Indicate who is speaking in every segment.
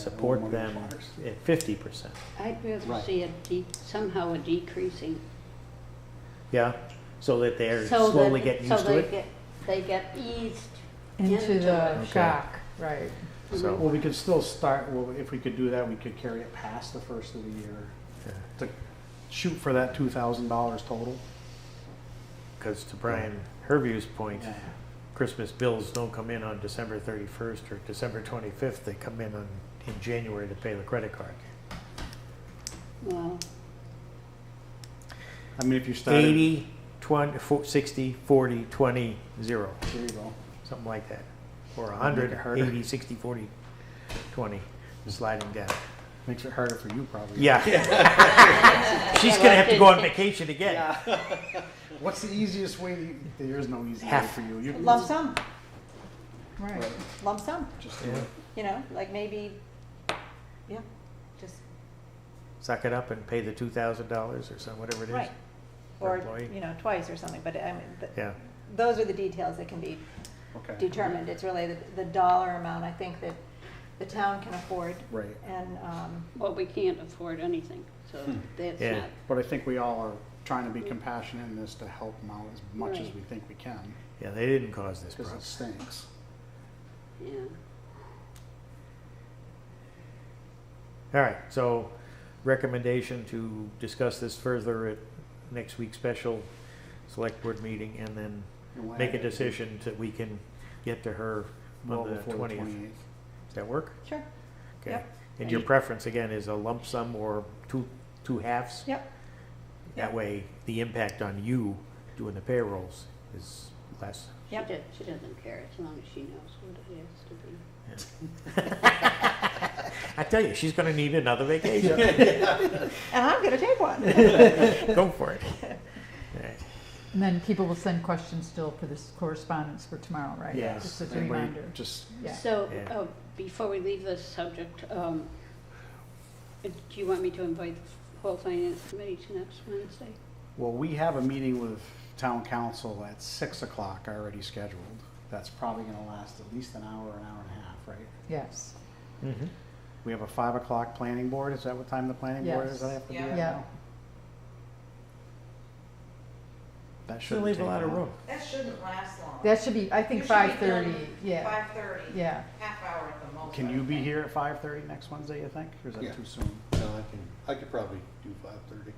Speaker 1: support them at fifty percent.
Speaker 2: I'd rather
Speaker 3: Right.
Speaker 2: see a de, somehow a decreasing.
Speaker 1: Yeah, so that they're
Speaker 2: so that-
Speaker 1: slowly getting
Speaker 2: so
Speaker 1: used to
Speaker 2: they
Speaker 1: it.
Speaker 2: get- They get eased.
Speaker 4: Into the
Speaker 2: it.
Speaker 4: shock, right.
Speaker 1: So,
Speaker 3: Well, we could still start, well, if we could do that, we could carry it past the first of the year to shoot for that two thousand dollars total.
Speaker 1: because to Brian Herview's point,
Speaker 3: Yeah.
Speaker 1: Christmas bills don't come in on December thirty-first or December twenty-fifth. They come in on, in January to pay the credit card.
Speaker 2: Mm-hmm. Well,
Speaker 3: I mean, if you started.
Speaker 1: Eighty, twenty, fo- sixty, forty, twenty, zero,
Speaker 3: There you go.
Speaker 1: something like that. Or a
Speaker 3: Make
Speaker 1: hundred,
Speaker 3: it harder.
Speaker 1: eighty, sixty, forty, twenty, sliding down.
Speaker 3: Makes it harder for you probably.
Speaker 1: Yeah, she's
Speaker 2: Yeah,
Speaker 1: gonna
Speaker 2: well,
Speaker 1: have to
Speaker 2: it-
Speaker 1: go on
Speaker 2: it-
Speaker 1: vacation again.
Speaker 3: What's the easiest way? to- There is no easy way
Speaker 1: Half.
Speaker 3: for you. You can
Speaker 5: Lump sum,
Speaker 4: Right.
Speaker 3: Right.
Speaker 5: lump sum,
Speaker 3: Just do it.
Speaker 5: you know, like maybe, yeah, just,
Speaker 1: Suck it up and pay the two thousand dollars or some, whatever it is.
Speaker 5: right.
Speaker 1: per
Speaker 5: Or,
Speaker 1: employee.
Speaker 5: you know, twice or something, but I mean, th-
Speaker 1: Yeah.
Speaker 5: those are the details that can be
Speaker 3: Okay.
Speaker 5: determined. It's really the, the dollar amount, I think, that the town can afford.
Speaker 3: Right.
Speaker 5: And, um,
Speaker 2: well, we can't afford anything, so that's
Speaker 1: Yeah.
Speaker 2: not,
Speaker 3: But I think we all are trying to be compassionate in this to help them out as much as
Speaker 2: Right.
Speaker 3: we think we can,
Speaker 1: Yeah, they didn't cause this
Speaker 3: because
Speaker 1: problem.
Speaker 3: it stinks.
Speaker 2: yeah.
Speaker 1: All right, so recommendation to discuss this further at next week's special select board meeting and then
Speaker 3: And we'll
Speaker 1: make a
Speaker 3: have it
Speaker 1: decision that we can get to her
Speaker 3: well
Speaker 1: on the
Speaker 3: before
Speaker 1: twentieth. Does
Speaker 3: 28th.
Speaker 1: that work?
Speaker 5: sure,
Speaker 1: Okay.
Speaker 5: Yep.
Speaker 1: And your preference again is a lump sum or two, two halves?
Speaker 5: yep,
Speaker 1: That
Speaker 5: Yep.
Speaker 1: way, the impact on you doing the payrolls is less.
Speaker 2: She
Speaker 5: yep.
Speaker 2: do- She doesn't care, as long as she knows what it has to be.
Speaker 1: I tell you, she's gonna need another vacation.
Speaker 5: And I'm gonna take one.
Speaker 1: Go for it. All right.
Speaker 4: And then people will send questions still for this correspondence for tomorrow, right?
Speaker 3: Yes.
Speaker 4: Just as a
Speaker 3: Everybody
Speaker 4: reminder.
Speaker 3: Just,
Speaker 4: Yeah.
Speaker 2: So,
Speaker 1: Yeah.
Speaker 2: uh, before we leave this subject, um, uh, do you want me to invite the whole finance committee to next Wednesday?
Speaker 3: well, we have a meeting with town council at six o'clock already scheduled. That's probably gonna last at least an hour, an hour and a half, right?
Speaker 4: Yes.
Speaker 1: Mhm.
Speaker 3: We have a five o'clock planning board. Is that what time the planning board is?
Speaker 4: Yes.
Speaker 3: that I have to be
Speaker 5: Yeah.
Speaker 3: at
Speaker 4: Yeah.
Speaker 3: now? That
Speaker 1: Should
Speaker 3: should
Speaker 1: leave a lot of room.
Speaker 6: That shouldn't last long.
Speaker 4: That should be, I think, five thirty, yeah,
Speaker 6: Five thirty.
Speaker 4: yeah.
Speaker 6: Half hour at the most.
Speaker 3: Can
Speaker 6: I
Speaker 3: you be
Speaker 6: think.
Speaker 3: here at five thirty next Wednesday, you think? Or is
Speaker 7: Yeah.
Speaker 3: that too soon?
Speaker 7: No, I can, I could probably do five thirty.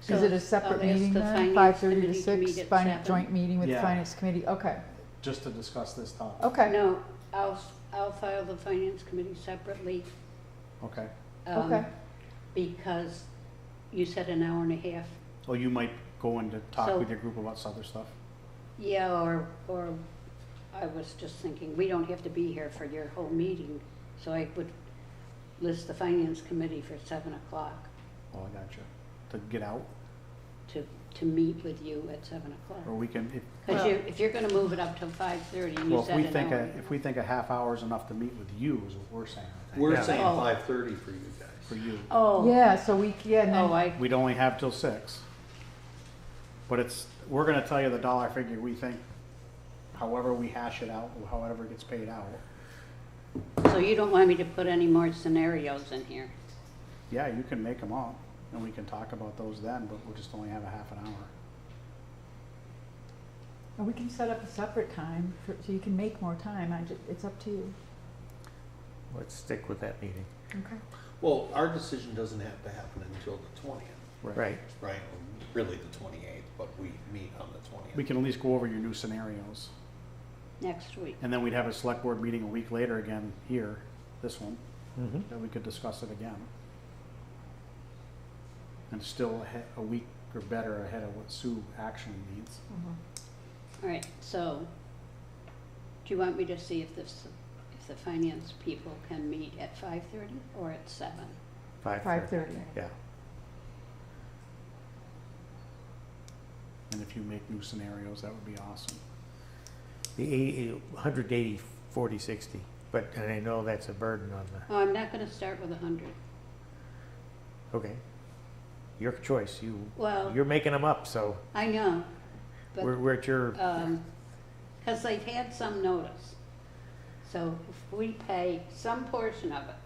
Speaker 2: So
Speaker 4: Is it a separate
Speaker 2: I'll ask
Speaker 4: meeting
Speaker 2: the
Speaker 4: then,
Speaker 2: finance
Speaker 4: five thirty to
Speaker 2: committee meet
Speaker 4: six,
Speaker 2: at
Speaker 4: finance
Speaker 2: seven.
Speaker 4: joint meeting with the
Speaker 3: Yeah.
Speaker 4: finance committee, okay,
Speaker 3: Just to discuss this topic?
Speaker 4: okay,
Speaker 2: No, I'll, I'll file the finance committee separately.
Speaker 3: Okay.
Speaker 2: um,
Speaker 4: Okay.
Speaker 2: Because you said an hour and a half,
Speaker 3: Well, you might go in to
Speaker 2: So-
Speaker 3: talk with your group about some other stuff.
Speaker 2: yeah, or, or I was just thinking, we don't have to be here for your whole meeting, so I would list the finance committee for seven o'clock
Speaker 3: Oh, I gotcha. To get out,
Speaker 2: to, to meet with you at seven
Speaker 3: or
Speaker 2: o'clock.
Speaker 3: we can, if,
Speaker 2: Because you, if you're gonna move it up till five thirty,
Speaker 3: well,
Speaker 2: you
Speaker 3: if we
Speaker 2: said an
Speaker 3: think, a-
Speaker 2: hour.
Speaker 3: if we think a half hour is enough to meet with you is what we're saying, I think,
Speaker 7: We're
Speaker 1: Yeah.
Speaker 7: saying
Speaker 2: Oh.
Speaker 7: five thirty for you
Speaker 3: for
Speaker 7: guys.
Speaker 3: you.
Speaker 2: Oh.
Speaker 4: yeah, so we, yeah, and
Speaker 2: Oh,
Speaker 4: then,
Speaker 2: I,
Speaker 3: We'd only have till six. But it's, we're gonna tell you the dollar figure we think, however we hash it out, however it gets paid out.
Speaker 2: so you don't want me to put any more scenarios in here?
Speaker 3: Yeah, you can make them up and we can talk about those then, but we'll just only have a half an hour.
Speaker 4: and we can set up a separate time, for- so you can make more time, I ju- it's up to you.
Speaker 1: Let's stick with that meeting.
Speaker 4: Okay.
Speaker 7: Well, our decision doesn't have to happen until the twentieth,
Speaker 1: Right.
Speaker 7: right? Really the twenty-eighth, but we meet on the twentieth.
Speaker 3: We can at least go over your new scenarios.
Speaker 2: Next week.
Speaker 3: And then we'd have a select board meeting a week later again here, this one,
Speaker 1: Mm-hmm.
Speaker 3: that we could discuss it again. And still ahe- a week or better ahead of what Sue actually needs.
Speaker 2: All right, so, do you want me to see if this, if the finance people can meet at five thirty or at seven?
Speaker 1: Five
Speaker 4: Five
Speaker 1: thirty.
Speaker 4: thirty.
Speaker 1: Yeah.
Speaker 3: And if you make new scenarios, that would be awesome.
Speaker 1: The eighty, hundred eighty, forty, sixty, but, and I know that's a burden on the,
Speaker 2: Oh, I'm not gonna start with a hundred.
Speaker 1: okay. Your choice, you,
Speaker 2: Well,
Speaker 1: you're making them up, so
Speaker 2: I know,
Speaker 1: we're,
Speaker 2: but,
Speaker 1: we're at your,
Speaker 2: um, cause they've had some notice. So if we pay some portion of it,